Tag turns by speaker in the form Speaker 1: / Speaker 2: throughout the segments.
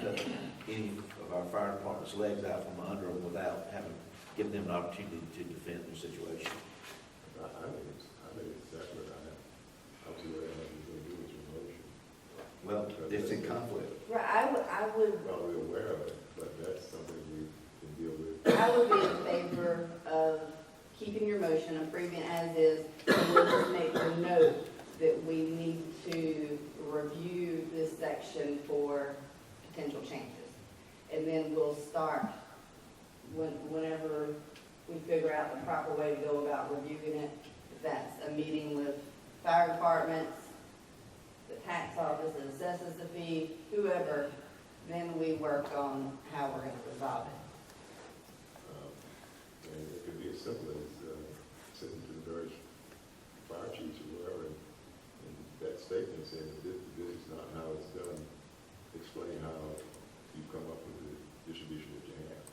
Speaker 1: cut any of our fire department's legs out from under them without having, giving them an opportunity to defend their situation.
Speaker 2: I, I think it's, I think it's separate, I have, I have to worry about what you're gonna do with your motion.
Speaker 1: Well, it's in conflict.
Speaker 3: Right, I would, I would,
Speaker 2: We're Probably aware of it, but that's something we can deal with.
Speaker 3: I would be in favor of keeping your motion, approving it as is, and we'll just make the note that we need to review this section for potential changes. And then we'll start when, whenever we figure out the proper way to go about reviewing it. If that's a meeting with fire departments, the tax office that assesses the fee, whoever, then we work on how we're gonna resolve it.
Speaker 2: Um, And it could be as simple as, uh, sitting to the very fire chiefs or whoever, and, and that statement saying that this, this is not how it's done, explain how you come up with the distribution that you have.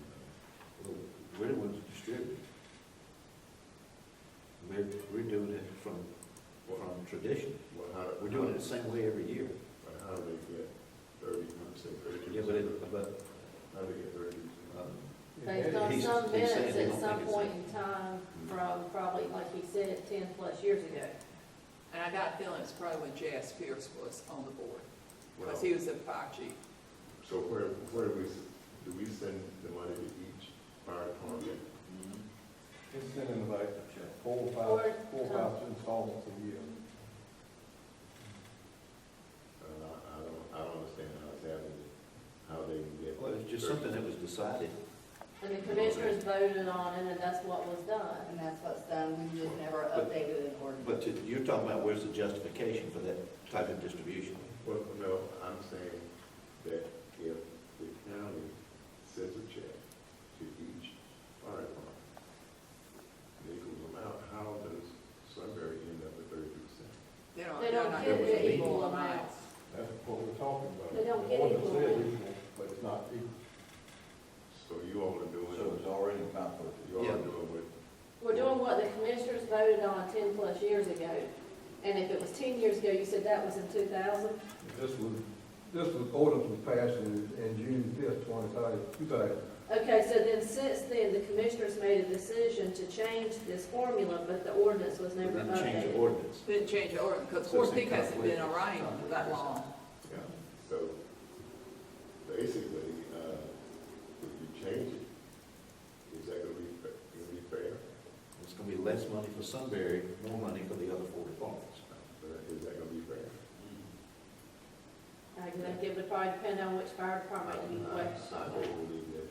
Speaker 2: And, uh,
Speaker 1: We're the ones distributing. We're, we're doing it from, from tradition.
Speaker 2: Well, how,
Speaker 1: We're doing it the same way every year.
Speaker 2: But how do they get thirty, I'm saying thirty-two
Speaker 1: Yeah, but it, but um,
Speaker 2: How do they get thirty-two percent?
Speaker 4: Based on
Speaker 1: He's-
Speaker 4: some
Speaker 1: he's saying
Speaker 4: minutes
Speaker 1: they
Speaker 4: at
Speaker 1: don't
Speaker 4: some
Speaker 1: think it's-
Speaker 4: point in time from probably, like he said, ten plus years ago.
Speaker 5: And I got a feeling it's probably when J.S. Pierce was on the board,
Speaker 2: Well,
Speaker 5: because he was the fire chief.
Speaker 2: so where, where do we, s- do we send the money to each fire department?
Speaker 6: It's in like four,
Speaker 4: Or
Speaker 6: five, four,
Speaker 4: come-
Speaker 6: five installments a year.
Speaker 2: Uh, I I don't, I don't understand how it's happening, how they can get.
Speaker 1: Well, it's just something that was decided.
Speaker 4: And the commissioners voted on it, and that's what was done.
Speaker 3: And that's what's done, we've just never
Speaker 1: But-
Speaker 3: updated an ordinance.
Speaker 1: But to- you're talking about where's the justification for that type of distribution?
Speaker 2: Well, no, I'm saying that if the county sends a check to each fire department, they can come out, how does Sunbury end up with thirty-two percent?
Speaker 5: They don't,
Speaker 4: They
Speaker 5: they're
Speaker 4: don't
Speaker 5: not
Speaker 4: get
Speaker 5: gonna
Speaker 1: the
Speaker 5: be
Speaker 4: equal
Speaker 5: equal
Speaker 4: amounts.
Speaker 5: amounts.
Speaker 6: That's what we're talking about.
Speaker 4: They don't get
Speaker 6: The ordinance
Speaker 4: equal
Speaker 6: said
Speaker 4: money.
Speaker 6: equal, But it's not equal.
Speaker 2: So you all are doing,
Speaker 7: So it's already in conflict.
Speaker 2: you all
Speaker 1: Yeah.
Speaker 2: are doing what
Speaker 4: We're doing what the commissioners voted on ten plus years ago. And if it was ten years ago, you said that was in two thousand?
Speaker 6: This was, this was, ordinance was passed in, in June fifth, twenty thousand, two thousand.
Speaker 4: Okay, so then since then, the commissioners made a decision to change this formula, but the ordinance was
Speaker 1: We
Speaker 4: never
Speaker 1: didn't change the
Speaker 4: updated.
Speaker 1: ordinance.
Speaker 5: Didn't change the order, because
Speaker 1: So it's
Speaker 5: Horse Peak
Speaker 1: in
Speaker 5: hasn't
Speaker 1: conflict.
Speaker 5: been around that long.
Speaker 2: Yeah, so basically, uh, if you change it, is that gonna be, fa- gonna be fair?
Speaker 1: It's gonna be less money for Sunbury, more money for the other four departments.
Speaker 2: Uh, Is that gonna be fair?
Speaker 4: I think it would probably depend on which fire department you
Speaker 2: I
Speaker 4: question.
Speaker 2: I don't believe that.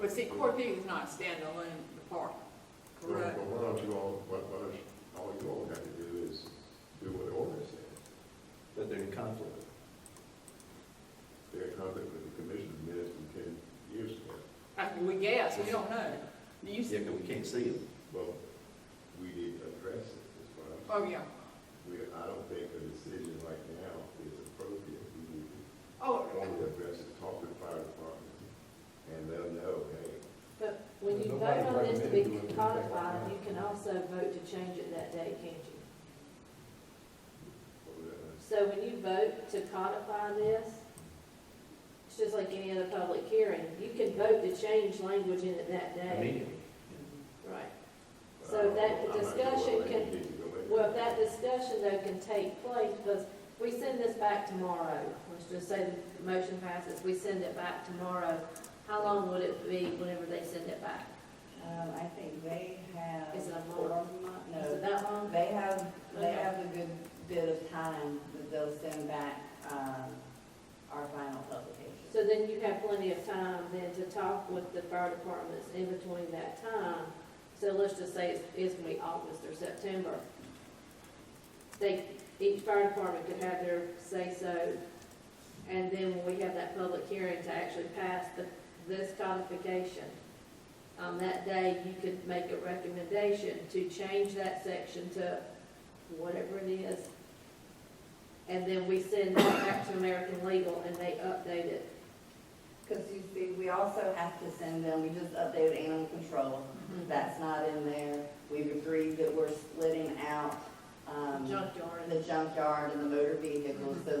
Speaker 5: But see, Horse Peak is not a standalone department,
Speaker 2: Well,
Speaker 5: correct?
Speaker 2: Why don't you all, why, why don't, you- all you all have to do is do what the ordinance says.
Speaker 1: But they're in conflict.
Speaker 2: They're in conflict with the commission's minutes from ten years ago.
Speaker 5: I- We guess, we don't know. You,
Speaker 1: Yeah,
Speaker 5: s-
Speaker 1: 'cause we can't see them.
Speaker 2: Well, we didn't address it, is what I'm
Speaker 5: oh, yeah.
Speaker 2: We, I don't think a decision right now is appropriate. We need to
Speaker 5: Oh,
Speaker 2: only address it, talk to the fire department, and they'll know, hey,
Speaker 4: But when you vote
Speaker 6: Nobody
Speaker 4: on this to be
Speaker 6: recommended doing it.
Speaker 4: codified, you can also vote to change it that day, can't you?
Speaker 2: uh,
Speaker 4: So when you vote to codify this, it's just like any other public hearing, you can vote to change language in it that day.
Speaker 1: Immediately.
Speaker 4: Right.
Speaker 2: but
Speaker 4: So
Speaker 2: I don't
Speaker 4: that
Speaker 2: know. uh, I'm not sure
Speaker 4: discussion
Speaker 2: whether
Speaker 4: can-
Speaker 2: you need to go in.
Speaker 4: Well, if that discussion though can take place, because we send this back tomorrow, let's just say the motion passes, we send it back tomorrow. How long would it be whenever they send it back?
Speaker 3: Um, I think they have.
Speaker 4: Is it a
Speaker 3: four
Speaker 4: month?
Speaker 3: month-
Speaker 4: Is it
Speaker 3: No,
Speaker 4: that long?
Speaker 3: they have, they
Speaker 4: Okay.
Speaker 3: have a good bit of time that they'll send back, um, our final publication.
Speaker 4: So then you have plenty of time then to talk with the fire departments in between that time. So let's just say it's, it's gonna be August or September. They, each fire department could have their say-so, and then when we have that public hearing to actually pass the, this codification, on that day, you could make a recommendation to change that section to whatever it is, and then we send that back to American Legal, and they update it
Speaker 3: Because you see, we also have to send them, we just updated animal control,
Speaker 4: Mm-hmm.
Speaker 3: that's not in there. We've agreed that we're splitting out, um,
Speaker 4: junkyard.
Speaker 3: the junkyard and the motor vehicles, so